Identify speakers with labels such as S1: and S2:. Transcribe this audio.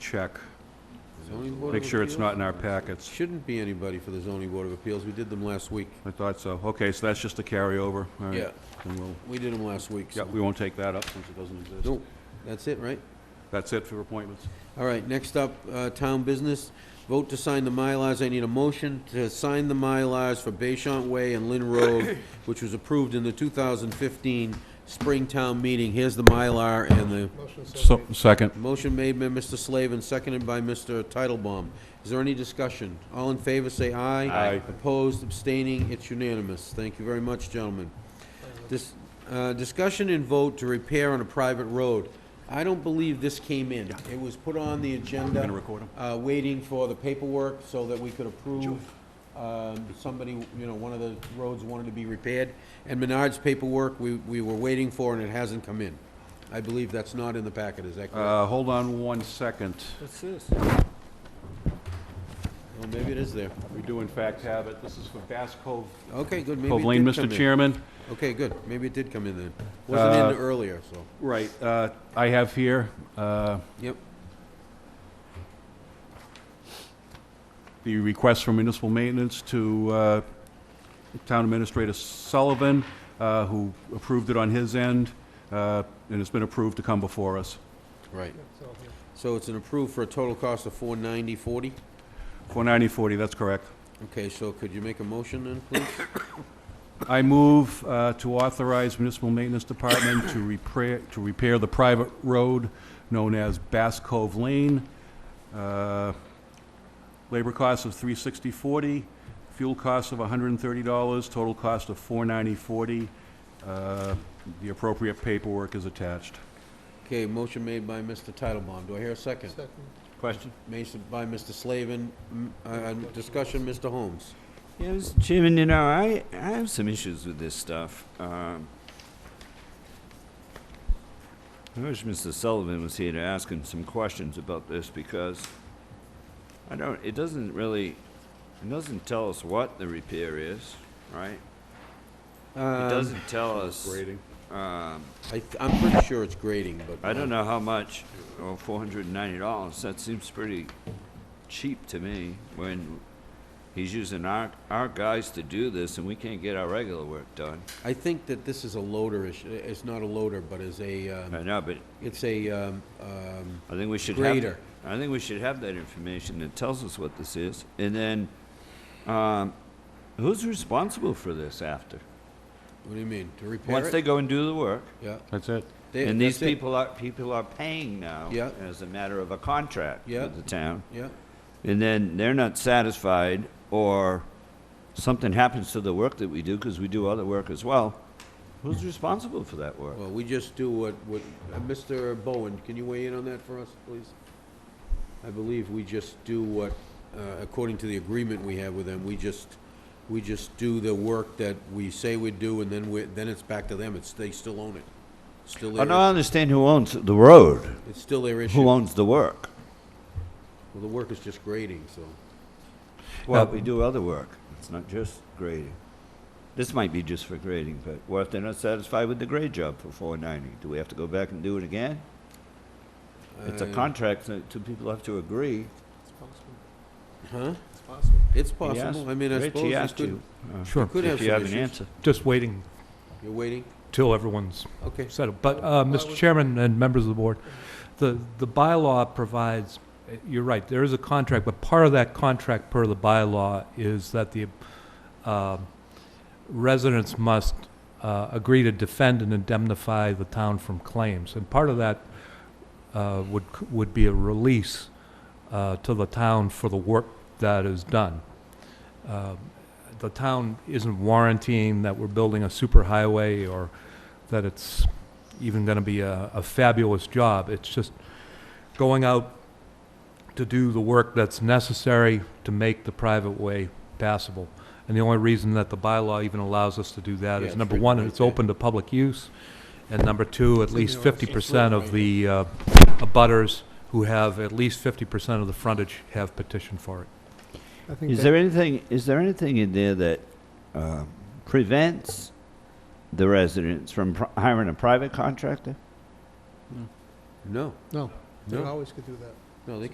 S1: check,
S2: Zoning Board of
S1: make sure it's
S2: Appeals?
S1: not in our packets.
S2: Shouldn't be anybody for the zoning board of appeals, we did them last week.
S1: I thought so. Okay, so that's just a carryover, all right.
S2: Yeah.
S1: And we'll,
S2: We did them last week,
S1: yeah,
S2: so.
S1: we won't take that up since it doesn't exist.
S2: Nope, that's it, right?
S1: That's it for appointments.
S2: All right, next up, uh, town business, vote to sign the Mylars. I need a motion to sign the Mylars for Bayshant Way and Lynn Road, which was approved in the 2015 Springtown meeting. Here's the Mylar and the
S1: Second.
S2: motion made by Mr. Slavin, seconded by Mr. Titlebaum. Is there any discussion? All in favor, say aye.
S1: Aye.
S2: Opposed, abstaining, it's unanimous. Thank you very much, gentlemen. This, uh, discussion and vote to repair on a private road. I don't believe this came in. It was put on the agenda.
S1: Gonna record 'em.
S2: Uh, waiting for the paperwork so that we could approve, um, somebody, you know, one of the roads wanted to be repaired. And Menard's paperwork, we, we were waiting for and it hasn't come in. I believe that's not in the packet, is that correct?
S1: Uh, hold on one second.
S3: What's this?
S2: Well, maybe it is there.
S1: We do in fact have it. This is for Bass Cove,
S2: Okay, good, maybe
S1: Cove
S2: it
S1: Lane,
S2: did come in.
S1: Mr. Chairman.
S2: Okay, good, maybe it did come in
S3: Uh,
S2: then. Wasn't in earlier, so,
S1: Right, uh, I have here, uh,
S2: yep.
S1: the request for municipal maintenance to uh, Town Administrator Sullivan, uh, who approved it on his end, uh, and it's been approved to come before us.
S2: Right. So it's an approved for a total cost of four ninety forty?
S1: 49040, that's correct.
S2: Okay, so could you make a motion then, please?
S1: I move uh, to authorize Municipal Maintenance Department to repair, to repair the private road known as Bass Cove Lane. Uh, Labor cost of 36040, fuel cost of $130, total cost of 49040. Uh, The appropriate paperwork is attached.
S2: Okay, motion made by Mr. Titlebaum, do I hear a second?
S1: Question?
S2: Made s- by Mr. Slavin, M- uh, uh, discussion, Mr. Holmes.
S3: Yeah, Mr. Chairman, you know, I, I have some issues with this stuff. Um, I wish Mr. Sullivan was here to ask him some questions about this because I don't, it doesn't really, it doesn't tell us what the repair is, right? It doesn't tell us, um,
S2: I, th- I'm pretty sure it's grading, but.
S3: I don't know how much, or four hundred and ninety dollars, that seems pretty cheap to me, when he's using our, our guys to do this, and we can't get our regular work done.
S2: I think that this is a loader issue, it's not a loader, but is a,
S3: I
S2: um,
S3: know, but
S2: it's a, um, um,
S3: I think we should
S2: Grader.
S3: have, I think we should have that information that tells us what this is, and then, um, who's responsible for this after?
S2: what do you mean, to repair it?
S3: Once they go and do the work,
S2: Yeah.
S1: That's it.
S2: They-
S3: and these
S2: that's it.
S3: people are, people are paying now.
S2: Yeah.
S3: As a matter of a contract
S2: Yeah.
S3: with the town.
S2: Yeah,
S3: and then they're not satisfied, or something happens to the work that we do, because we do other work as well, who's responsible for that work?
S2: well, we just do what, what, uh, Mr. Bowen, can you weigh in on that for us, please? I believe we just do what, uh, according to the agreement we have with them, we just, we just do the work that we say we do, and then we, then it's back to them, it's, they still own it. Still
S3: I don't
S2: their,
S3: understand who owns the road,
S2: it's still their issue.
S3: Oh, who
S2: Well,
S3: owns the work?
S2: the work is just grading, so.
S3: Well, we do other work, it's not just grading. This might be just for grading, but what if they're not satisfied with the grade job for four ninety? Do we have to go back and do it again? It's a
S2: I-
S3: contract, so two people have to agree.
S2: Huh?
S4: It's possible.
S2: It's
S3: He
S2: possible,
S3: asked-
S2: I mean, I
S3: Rich,
S2: suppose
S3: he
S2: you
S3: asked
S2: could-
S3: you, uh,
S5: Sure,
S2: could have
S3: If you
S2: some
S3: have an
S2: issues.
S3: answer.
S5: just waiting
S2: You're waiting,
S5: till everyone's
S2: okay,
S5: settled. But, uh, Mr. Chairman and members of the board, the, the bylaw provides, uh, you're right, there is a contract, but part of that contract per the bylaw is that the um, residents must uh, agree to defend and indemnify the town from claims. And part of that uh, would, would be a release uh, to the town for the work that is done. Uh, The town isn't warranting that we're building a superhighway or that it's even going to be a, a fabulous job. It's just going out to do the work that's necessary to make the private way passable. And the only reason that the bylaw even allows us to do that
S2: Yeah,
S5: is,
S2: it's
S5: number
S2: written
S5: one,
S2: right
S5: it's
S2: there.
S5: open to public use, and number two, at least
S4: It's written
S5: fifty percent of the uh, abutters who have at least fifty percent of the frontage have petitioned for it.
S4: I think
S3: Is
S4: that-
S3: there anything, is there anything in there that uh, prevents the residents from pr- hiring a private contractor?
S2: no,
S4: No, they
S2: No.
S4: always could do that.
S2: no, they